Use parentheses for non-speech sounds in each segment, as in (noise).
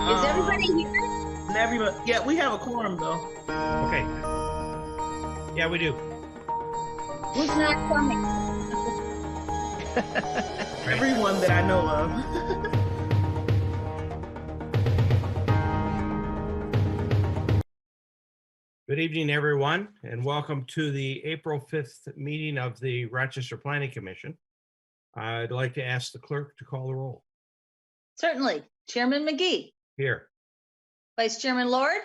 everybody here? Um, And everybody, yeah, we have a quorum though. Okay. Yeah, we do. Who's not coming? Everyone that I know of. Good evening, everyone, and welcome to the April 5th meeting of the Rochester Planning Commission. I'd like to ask the clerk to call the roll. Certainly. Chairman McGee, Here, Vice Chairman Lord.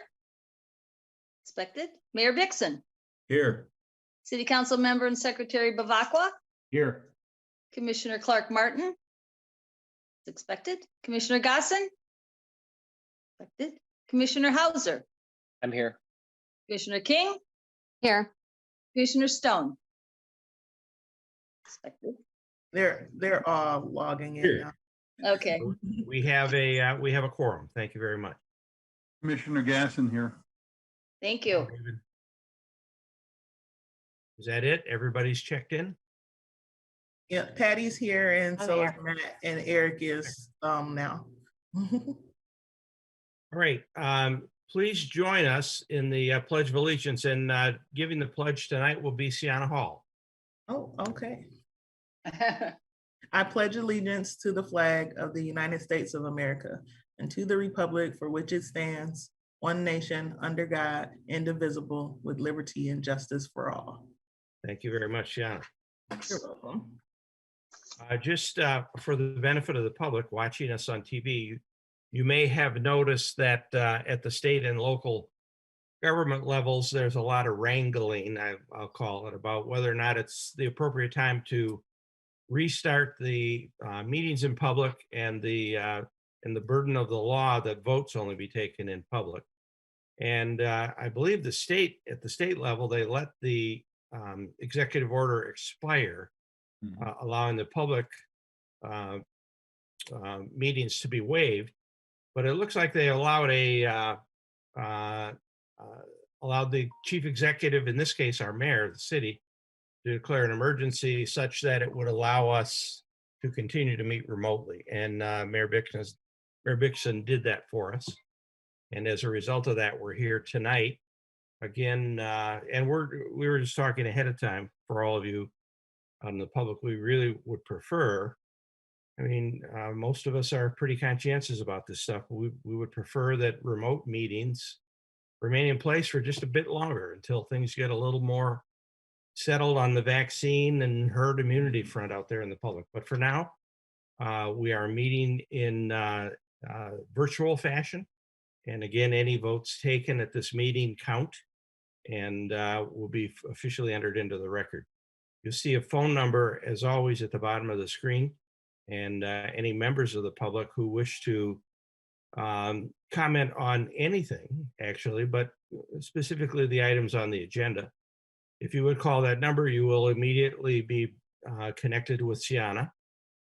Expected. Mayor Dixon, Here. City Council Member and Secretary Bavacqua, Here. Commissioner Clark Martin. It's Expected. Commissioner Gossen. Expected. Commissioner Hauser, I'm here. Commissioner King, Here, Commissioner Stone. Expected. They're they're all logging in Here. now. Okay, we have a, uh, we have a quorum. Thank you very much. Commissioner Gasson here. thank you. Is that it? Everybody's checked in? Yeah, Patty's here and I'm so is here. Matt and Eric is um now. (laughs) All right, um, please join us in the uh, Pledge of Allegiance and uh, giving the pledge tonight will be Sienna Hall. Oh, okay. I pledge allegiance to the flag of the United States of America and to the republic for which it stands, one nation, under God, indivisible, with liberty and justice for all. Thank you very much, Sienna. You're welcome. Uh, Just uh, for the benefit of the public watching us on TV, you- you may have noticed that uh, at the state and local government levels, there's a lot of wrangling, I- I'll call it, about whether or not it's the appropriate time to restart the uh, meetings in public and the, uh, and the burden of the law that votes only be taken in public. And uh, I believe the state, at the state level, they let the um, executive order expire uh, allowing the public uh, uh, meetings to be waived. But it looks like they allowed a, uh, uh, uh, allowed the chief executive, in this case, our mayor of the city, to declare an emergency such that it would allow us to continue to meet remotely. And uh, Mayor Bixson, Mayor Bixson did that for us. And as a result of that, we're here tonight again. uh, And we're, we were just talking ahead of time for all of you on the public we really would prefer. I mean, uh, most of us are pretty conscientious about this stuff. We, we would prefer that remote meetings remain in place for just a bit longer until things get a little more settled on the vaccine and herd immunity front out there in the public. But for now, uh, we are meeting in uh, uh, virtual fashion. And again, any votes taken at this meeting count and uh, will be officially entered into the record. You'll see a phone number, as always, at the bottom of the screen. And uh, any members of the public who wish to um, comment on anything, actually, but uh, specifically the items on the agenda. If you would call that number, you will immediately be uh, connected with Sienna.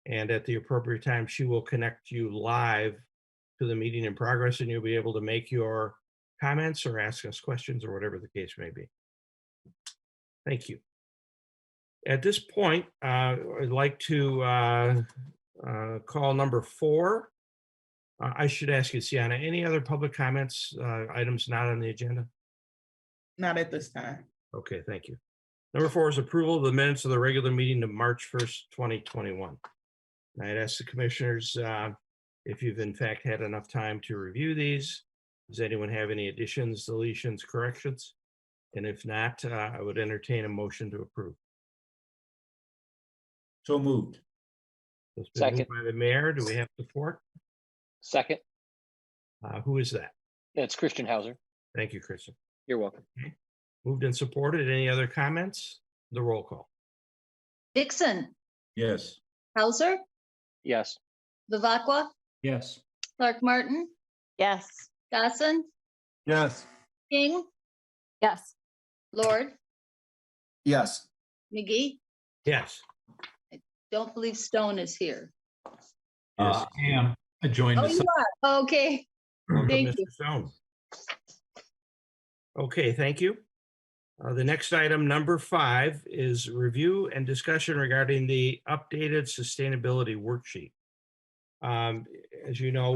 And at the appropriate time, she will connect you live to the meeting in progress, and you'll be able to make your comments or ask us questions or whatever the case may be. Thank you. At this point, uh, I'd like to uh, uh, call number four. Uh, I should ask you, Sienna, any other public comments, uh, items not on the agenda? Not at this time. Okay, thank you. Number four is approval of the minutes of the regular meeting of March 1st, 2021. And I'd ask the commissioners uh, if you've in fact had enough time to review these. Does anyone have any additions, deletions, corrections? And if not, uh, I would entertain a motion to approve. So moved. It's been moved Second. By the mayor, do we have support? Second, Uh, Who is that? it's Christian Hauser. Thank you, Kristen. You're welcome. Moved and supported. Any other comments? The roll call. Dixon, Yes. Hauser, Yes, Bavacqua, Yes. Clark Martin, yes. Gossen, Yes. King, Yes. Lord, Yes. McGee. Yes. Don't believe Stone is here. Yes. I am. I joined Oh, us. you are. Okay. Welcome, Thank you. Mr. Stone. Okay, thank you. Uh, The next item, number five, is review and discussion regarding the updated sustainability worksheet. Um, As you know,